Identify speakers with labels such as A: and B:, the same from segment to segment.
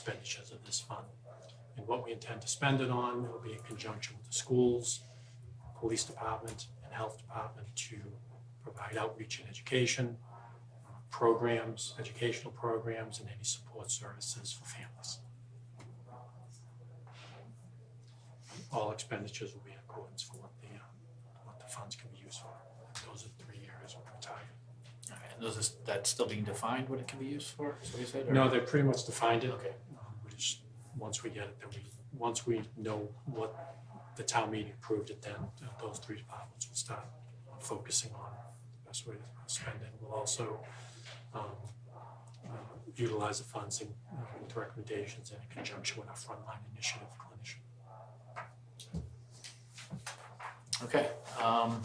A: expenditures of this fund. And what we intend to spend it on will be in conjunction with the schools, police department, and health department to provide outreach and education, uh, programs, educational programs, and any support services for families. All expenditures will be in accordance for what the, uh, what the funds can be used for. Those are three areas we're targeting.
B: All right, And those is, that's still being defined what it can be used for, so you said? or-
A: No, they pretty much defined it.
B: Okay.
A: Um, We just, once we get it, then we, once we know what the town meeting approved it, then uh, those three departments will start focusing on the best way to spend it. We'll also um, uh, utilize the funds in, uh, with recommendations and in conjunction with our frontline initiative clinician.
B: Okay, um.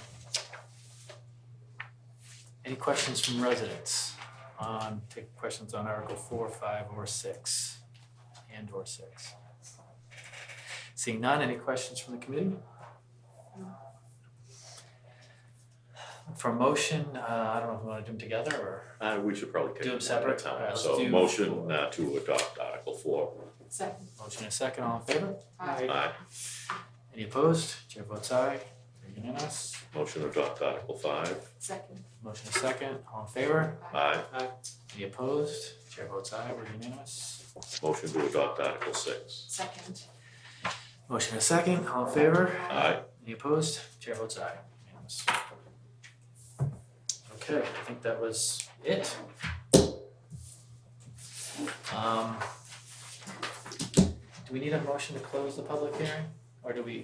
B: Any questions from residents on, take questions on Article four, five, or six, and or six? Seeing none, any questions from the committee? For motion, uh, I don't know if we wanna do them together or,
C: Uh, we should probably take
B: Do them
C: them one at
B: separate?
C: a time.
B: Alright, let's
C: So
B: do-
C: motion uh, to adopt Article four.
D: Second.
B: motion and second, all in favor?
D: Aye.
C: Aye.
B: Any opposed? Chair votes aye, unanimous.
C: Motion to adopt Article five.
D: Second.
B: Motion and second, all in favor?
C: Aye.
B: Any opposed? Chair votes aye, we're unanimous.
C: Motion to adopt Article six.
D: Second.
B: Motion and second, all in favor?
C: Aye.
B: Any opposed? Chair votes aye, unanimous. Okay, I think that was it. Um. Do we need a motion to close the public hearing, or do we,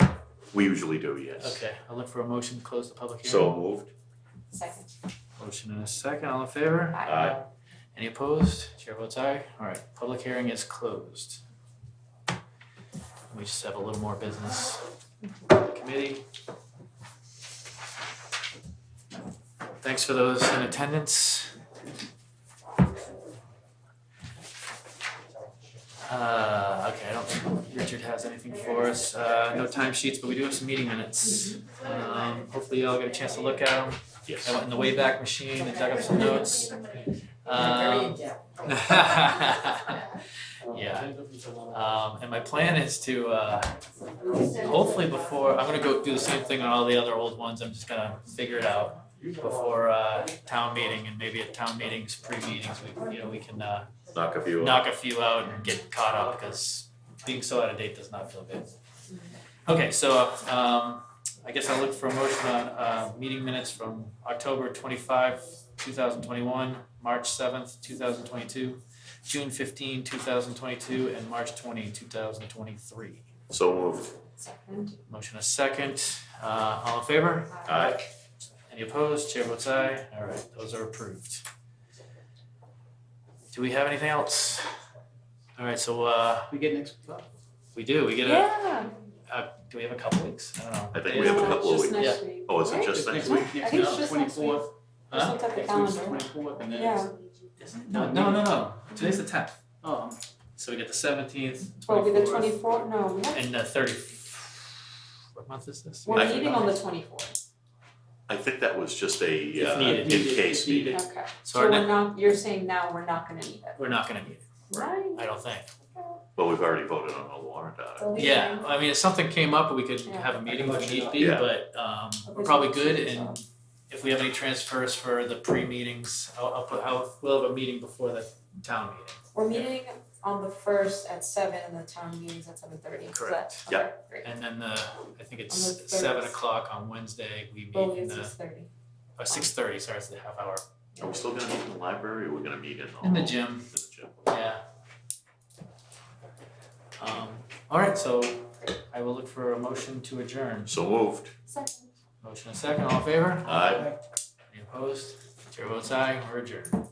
C: We usually do, yes.
B: okay, I'll look for a motion to close the public hearing.
C: So moved.
D: Second.
B: Motion and a second, all in favor?
C: Aye.
B: Any opposed? Chair votes aye. All right, public hearing is closed. We just have a little more business. Committee. Thanks for those in attendance. Uh, okay, I don't think Richard has anything for us. Uh, no time sheets, but we do have some meeting minutes. Um, hopefully y'all get a chance to look at them. I
C: Yes.
B: went in the Wayback Machine and dug up some notes.
D: Very
E: Uh,
B: Um,
D: in-depth.
B: yeah, um, and my plan is to, uh, hopefully before, I'm gonna go do the same thing on all the other old ones, I'm just gonna figure it out before, uh, town meeting, and maybe at town meetings, pre-meetings, we, you know, we can, uh,
C: Knock a few off.
B: knock a few out and get caught up, because being so out of date does not feel good. Okay, so, um, I guess I'll look for a motion on, uh, meeting minutes from October twenty-five, two thousand twenty-one, March seventh, two thousand twenty-two, June 15, 2022, and March 20, 2023.
C: So moved.
D: Second.
B: Motion a second, uh, all in favor?
C: Aye.
B: Any opposed? Chair votes aye. All right, those are approved. Do we have anything else? All right, so, uh,
E: We get next,
B: we do, we get a,
D: Yeah.
B: uh, do we have a couple weeks? I don't know.
C: I think we have a couple of
D: Just
C: weeks.
D: next week.
C: Oh, is it
D: Right?
C: just
E: just
C: next
E: next week,
D: I
E: next
D: think
E: week,
D: it's just next week.
E: twenty-fourth,
D: Just
B: Huh?
D: look at the
E: next week's the
D: calendar.
E: twenty-fourth, and then it's,
D: Yeah,
B: No, no, no, no. Today's the tenth.
E: um,
B: So we get the seventeenth,
D: well, it'll be the
B: twenty-fourth,
D: twenty-fourth, no, we have-
B: and the thirty. What month is this?
D: we're
C: I-
D: meeting on the twenty-fourth,
C: I think that was just a
B: If
C: uh, in
B: needed.
C: case
E: If needed.
C: meeting.
D: okay.
B: So our
D: So we're
B: next,
D: not, you're saying now we're not gonna need it,
B: we're not gonna meet,
D: right?
B: I don't think.
C: Well, we've already voted on a warrant article.
B: Yeah, I mean, if something came up, we could
D: Yeah.
B: have a meeting if need be,
C: Yeah.
B: but um we're probably good and if we have any transfers for the pre-meetings, I'll I'll put, I'll, we'll have a meeting before the town meeting.
D: We're meeting on the first at seven and the town meeting's at seven thirty, is that,
C: Yeah.
D: okay, great.
B: And then the, I think it's
D: On the third. Oh,
B: seven o'clock on Wednesday, we
D: Well,
B: meet in
D: it's
B: the,
D: six thirty.
B: uh, six thirty, sorry, it's the half hour,
C: Are we still gonna meet in the library or we're gonna meet in
D: Oh.
C: the?
B: in the
C: hall?
B: gym,
C: In the gym.
B: yeah. Um, alright, so I will look for a motion to adjourn.
C: So moved.
D: Second.
B: Motion and second, all in favor?
C: Aye.
B: Any opposed? Chair votes aye, we're adjourned.